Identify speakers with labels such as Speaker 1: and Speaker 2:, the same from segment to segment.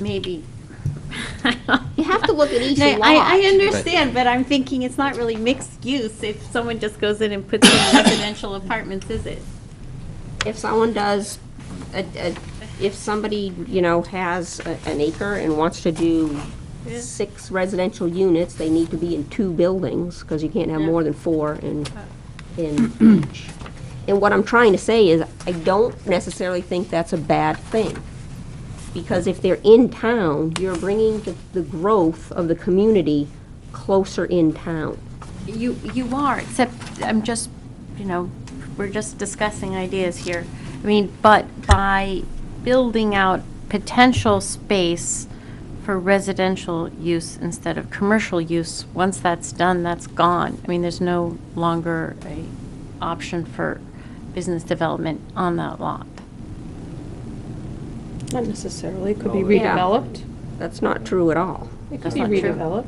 Speaker 1: maybe. You have to look at each
Speaker 2: No,
Speaker 1: lot.
Speaker 2: I, I understand, but I'm thinking it's not really mixed use if someone just goes in and puts in residential apartments, is it?
Speaker 1: If someone does, a- a- if somebody, you know, has a- an acre and wants to do
Speaker 2: Yeah.
Speaker 1: six residential units, they need to be in two buildings, because you can't have
Speaker 2: Yeah.
Speaker 1: more than four in, in each. And what I'm trying to say is, I don't necessarily think that's a bad thing. Because if they're in town, you're bringing the, the growth of the community closer in town.
Speaker 2: You, you are, except I'm just, you know, we're just discussing ideas here. I mean, but by building out potential space for residential use instead of commercial use, once that's done, that's gone. I mean, there's no longer a option for business development on that lot.
Speaker 3: Not necessarily, it could be
Speaker 1: Yeah.
Speaker 3: redeveloped.
Speaker 1: That's not true at all.
Speaker 3: It
Speaker 2: Oh,
Speaker 3: could
Speaker 2: That's
Speaker 3: be
Speaker 2: not true.
Speaker 3: redeveloped.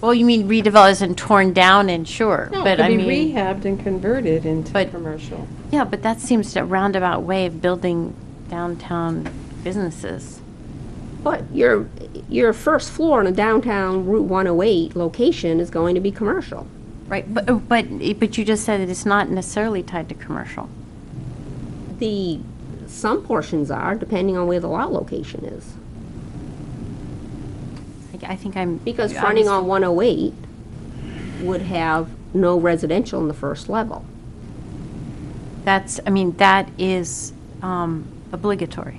Speaker 2: Well, you mean redevelop isn't torn down and sure,
Speaker 3: No,
Speaker 2: but I mean.
Speaker 3: It could be rehabbed and converted into
Speaker 2: But-
Speaker 3: commercial.
Speaker 2: Yeah, but that seems a roundabout way of building downtown businesses.
Speaker 1: But your, your first floor in a downtown Route 108 location is going to be commercial.
Speaker 2: Right, but, oh, but, but you just said that it's not necessarily tied to commercial.
Speaker 1: The, some portions are, depending on where the lot location is.
Speaker 2: I- I think I'm.
Speaker 1: Because
Speaker 2: I
Speaker 1: fronting
Speaker 2: was-
Speaker 1: on 108 would have no residential in the first level.
Speaker 2: That's, I mean, that is um, obligatory.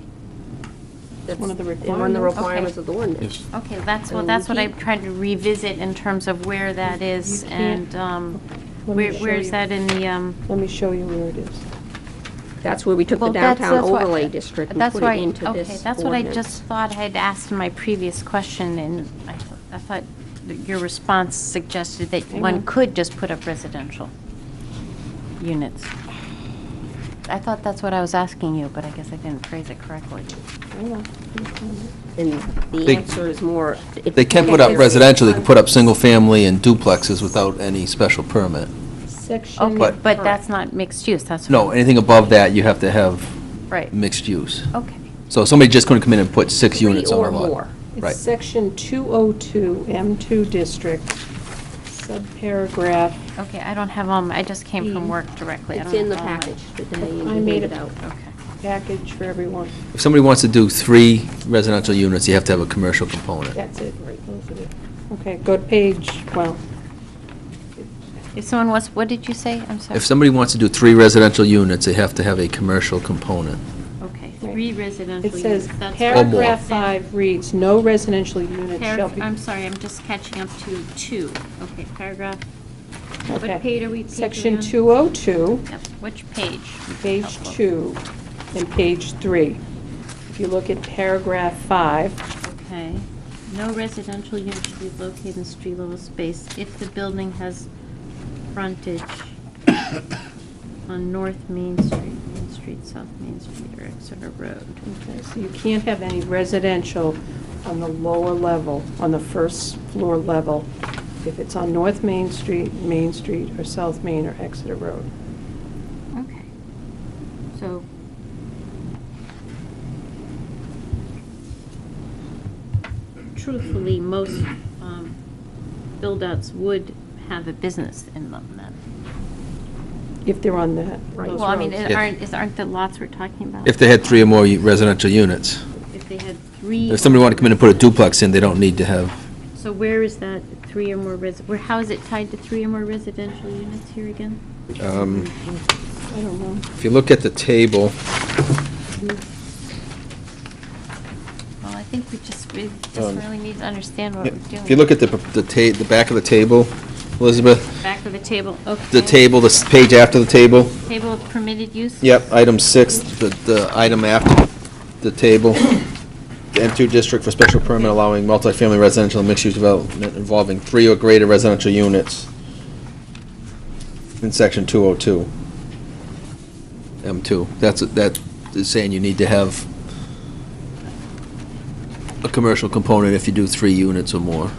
Speaker 1: That's
Speaker 3: One of the
Speaker 1: One of the
Speaker 3: requirements.
Speaker 1: requirements of the ordinance.
Speaker 4: Yes.
Speaker 2: Okay, that's what,
Speaker 1: And
Speaker 2: that's
Speaker 1: we
Speaker 2: what I
Speaker 1: keep-
Speaker 2: tried to revisit in terms of where that is
Speaker 3: You can't-
Speaker 2: and um,
Speaker 3: Let me
Speaker 2: where,
Speaker 3: show
Speaker 2: where is
Speaker 3: you.
Speaker 2: that in the, um,
Speaker 3: Let me show you where it is.
Speaker 1: That's where we took the
Speaker 2: Well, that's-
Speaker 1: downtown
Speaker 2: that's why-
Speaker 1: overlay district and
Speaker 2: that's
Speaker 1: put
Speaker 2: why-
Speaker 1: it into
Speaker 2: Okay,
Speaker 1: this
Speaker 2: that's what I just
Speaker 1: ordinance.
Speaker 2: thought I'd asked in my previous question, and I th- I thought that your response suggested that
Speaker 3: Hang
Speaker 2: one
Speaker 3: on.
Speaker 2: could just put up residential units. I thought that's what I was asking you, but I guess I didn't phrase it correctly.
Speaker 3: Hang on.
Speaker 1: And the
Speaker 4: They-
Speaker 1: answer is more. it-
Speaker 4: They can put up
Speaker 1: there's-
Speaker 4: residential, they can put up single-family and duplexes without any special permit.
Speaker 3: Section,
Speaker 2: Okay,
Speaker 4: But-
Speaker 2: Oh, but that's not mixed use, that's.
Speaker 4: No,
Speaker 2: what-
Speaker 4: anything above that, you have to have
Speaker 2: Right,
Speaker 4: mixed use.
Speaker 2: okay.
Speaker 4: So somebody just going to come in and put six
Speaker 1: Three
Speaker 4: units on
Speaker 1: or
Speaker 4: a lot.
Speaker 1: more.
Speaker 4: Right.
Speaker 3: it's section 202, M2 district, subparagraph.
Speaker 2: Okay, I don't have, um, I just came from work directly. I
Speaker 1: Mm. It's
Speaker 2: don't
Speaker 1: in the
Speaker 2: have all my-
Speaker 1: package today. and
Speaker 3: I
Speaker 1: we
Speaker 3: made
Speaker 1: handed
Speaker 3: it.
Speaker 1: out.
Speaker 2: Okay.
Speaker 3: package for everyone.
Speaker 4: If somebody wants to do three residential units, you have to have a commercial component.
Speaker 3: That's it, right, those are it. Okay, go to page, well,
Speaker 2: If someone wants, what did you say? I'm sorry.
Speaker 4: If somebody wants to do three residential units, they have to have a commercial component.
Speaker 2: Okay,
Speaker 3: Right.
Speaker 2: three residential
Speaker 3: it
Speaker 2: units.
Speaker 3: says
Speaker 2: that's what-
Speaker 4: Or more.
Speaker 3: paragraph five reads, no residential unit shall
Speaker 2: Parag-
Speaker 3: be.
Speaker 2: I'm sorry, I'm just catching up to two. Okay, paragraph, what
Speaker 3: Okay.
Speaker 2: page are we? page are we
Speaker 3: Section
Speaker 2: on?
Speaker 3: 202.
Speaker 2: Yep, which page? would be
Speaker 3: page
Speaker 2: helpful?
Speaker 3: two and page three. If you look at paragraph five,
Speaker 2: Okay. No residential unit should be located in street level space if the building has frontage on North Main Street, Main Street, South Main Street, or Exeter Road.
Speaker 3: okay, so you can't have any residential on the lower level, on the first floor level, if it's on North Main Street, Main Street, or South Main, or Exeter Road.
Speaker 2: Okay. So. Truthfully, most um, build-outs would have a business in them then.
Speaker 3: If they're on that,
Speaker 1: Right.
Speaker 3: those
Speaker 2: Well, I mean,
Speaker 3: roads.
Speaker 2: it
Speaker 4: Yeah.
Speaker 2: aren't, is- aren't the lots we're talking about?
Speaker 4: If they had three or more u- residential units.
Speaker 2: If they had three.
Speaker 4: If somebody wanted to come in and put a duplex in, they don't need to have,
Speaker 2: So where is that three or more resi, where, how is it tied to three or more residential units here again?
Speaker 4: um,
Speaker 3: I don't know.
Speaker 4: if you look at the table,
Speaker 2: Well, I think we just, we just
Speaker 4: Um,
Speaker 2: really need to understand what we're doing.
Speaker 4: if you look at the, p- the ta, the back of the table, Elizabeth,
Speaker 2: Back of the table, okay.
Speaker 4: the table, the s- page after the table,
Speaker 2: Table of permitted use?
Speaker 4: Yep, item six, the, the item after the table, the M2 district for special permit allowing multifamily residential and mixed-use development involving three or greater residential units in section 202. M2, that's, that is saying you need to have a commercial component if you do three units or more.